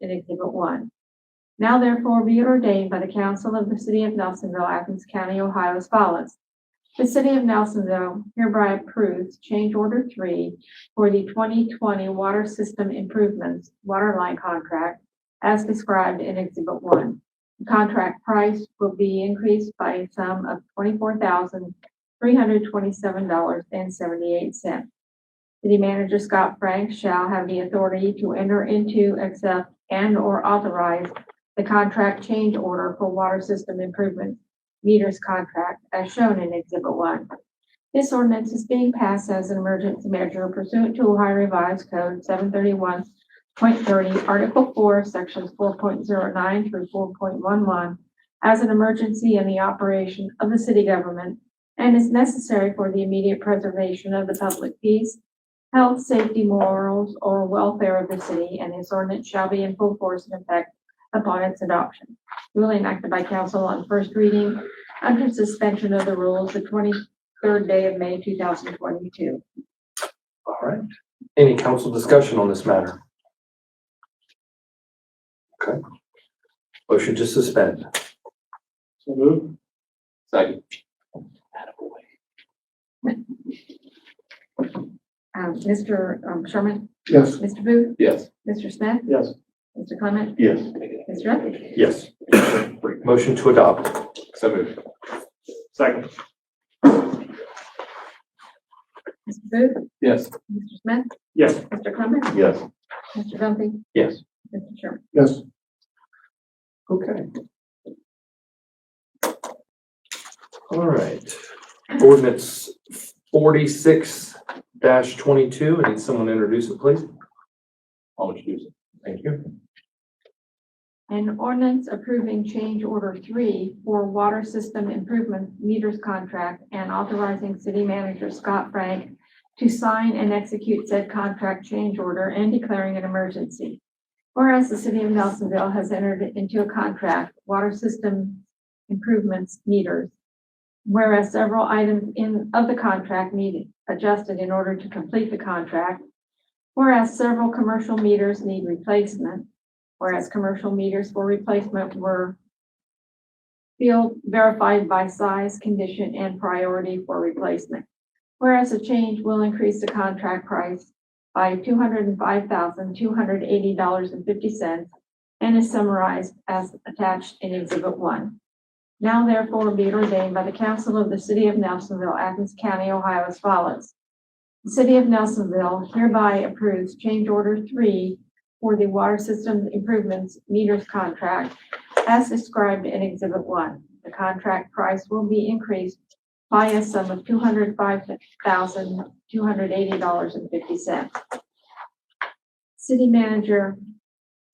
in Exhibit One. Now therefore be it ordained by the Council of the City of Nelsonville, Athens County, Ohio as follows. The City of Nelsonville hereby approves change order three for the twenty twenty water system improvements water line contract as described in Exhibit One. The Contract price will be increased by a sum of twenty-four thousand, three hundred twenty-seven dollars and seventy-eight cents. City Manager Scott Frank shall have the authority to enter into, accept, and/or authorize the contract change order for water system improvement meters contract as shown in Exhibit 1. This ordinance is being passed as an emergency measure pursuant to Ohio Revised Code 731.30, Article 4, Sections 4.09 through 4.11, as an emergency in the operation of the city government and is necessary for the immediate preservation of the public peace, health, safety, morals, or welfare of the city, and this ordinance shall be in full force and effect upon its adoption. Duly enacted by council on first reading under suspension of the rules the twenty-third day of May, two thousand twenty-two. All right. Any council discussion on this matter? Okay. Motion to suspend. So moved. Second. Um, Mr. um, Sherman, Yes. Mr. Booth, Yes. Mr. Smith, Yes. Mr. Clement, Yes. Mr. Duffy. Yes. Motion to adopt. So moved. Second. Mr. Booth, Yes. Mr. Smith, Yes. Mr. Clement, Yes. Mr. Duffy, Yes. Mr. Sherman. Yes. Okay. All right. Ordinance forty-six twenty-two. I need someone to introduce it, please. I'll introduce it. Thank you. An ordinance approving change order three for water system improvement meters contract and authorizing city manager Scott Frank to sign and execute said contract change order and declaring an emergency. Whereas the city of Nelsonville has entered into a contract, water system improvements meters. Whereas several items in, of the contract need adjusted in order to complete the contract. Whereas several commercial meters need replacement whereas commercial meters for replacement were field verified by size, condition, and priority for replacement. Whereas the change will increase the contract price by two hundred and five thousand, two hundred eighty dollars and fifty cents and is summarized as attached in Exhibit One. Now therefore be it ordained by the Council of the City of Nelsonville, Athens County, Ohio as follows. The City of Nelsonville hereby approves change order three for the water system improvements meters contract as described in Exhibit 1. The contract price will be increased by a sum of $205,280.50. City Manager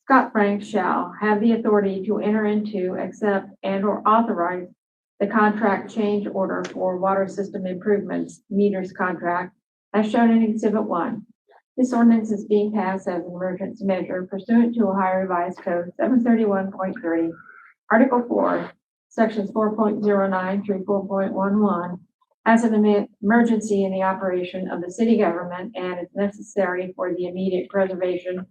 Scott Frank shall have the authority to enter into, accept, and/or authorize the contract change order for water system improvements meters contract as shown in Exhibit 1. This ordinance is being passed as an emergency measure pursuant to Ohio Revised Code seven thirty-one point three, Article four, Sections four point zero nine through four point one one, as an emer- emergency in the operation of the city government and is necessary for the immediate preservation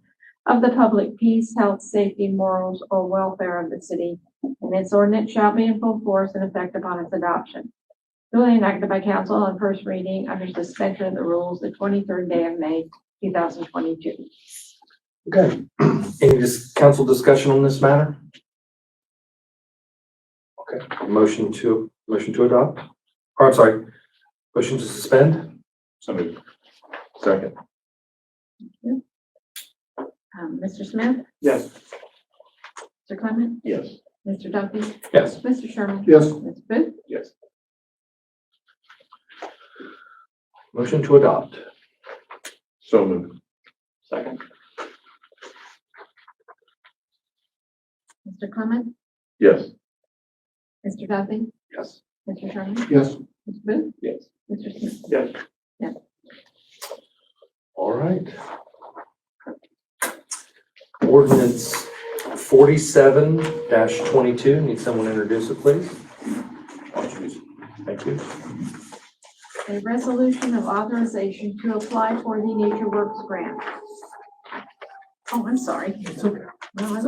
of the public peace, health, safety, morals, or welfare of the city, and this ordinance shall be in full force and effect upon its adoption. Duly enacted by council on first reading under suspension of the rules the twenty-third day of May, 2022. Okay. Any dis- council discussion on this matter? Okay, motion to, motion to adopt? Or I'm sorry, motion to suspend? So moved. Second. Um, Mr. Smith, Yes. Mr. Clement, Yes. Mr. Duffy, Yes. Mr. Sherman. Yes. Ms. Booth, Yes. Motion to adopt. So moved. Second. Mr. Clement, Yes. Mr. Duffy, Yes. Mr. Sherman, Yes. Ms. Booth, Yes. Mr. Smith. Yes. All right. Ordinance forty-seven twenty-two. Need someone to introduce it, please? I'll introduce it. Thank you. A resolution of authorization to apply for the Nature Works grant. Oh, I'm sorry. It's okay. Well, I